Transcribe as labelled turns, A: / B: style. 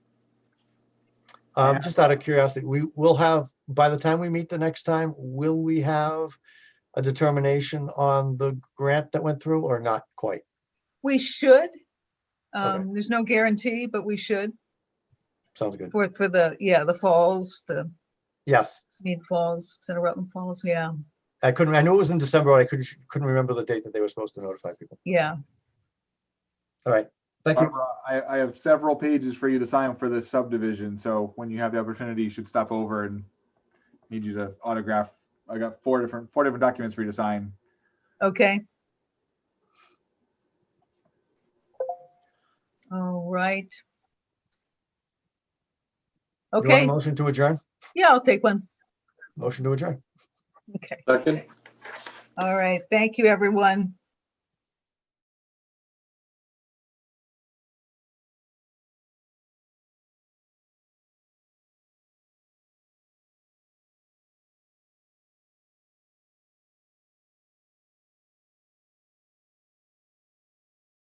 A: Um,
B: Yeah.
A: just out of curiosity, we will have, by the time we meet the next time, will we have a determination on the grant that went through or not quite?
B: We should. Um, there's no guarantee, but we should
A: Sounds good.
B: for, for the, yeah, the falls, the
A: Yes.
B: Mead Falls, Center Rutland Falls. Yeah,
A: I couldn't, I knew it was in December, but I couldn't, couldn't remember the date that they were supposed to notify people.
B: yeah.
A: All right. Thank you.
C: Barbara, I, I have several pages for you to sign for this subdivision, so when you have the opportunity, you should stop over and need you to autograph. I got four different, four different documents for you to sign.
B: Okay. All right.
A: You want a
B: Okay,
A: Motion to adjourn?
B: yeah, I'll take one.
A: Motion to adjourn.
B: Okay.
D: Second?
B: All right. Thank you, everyone.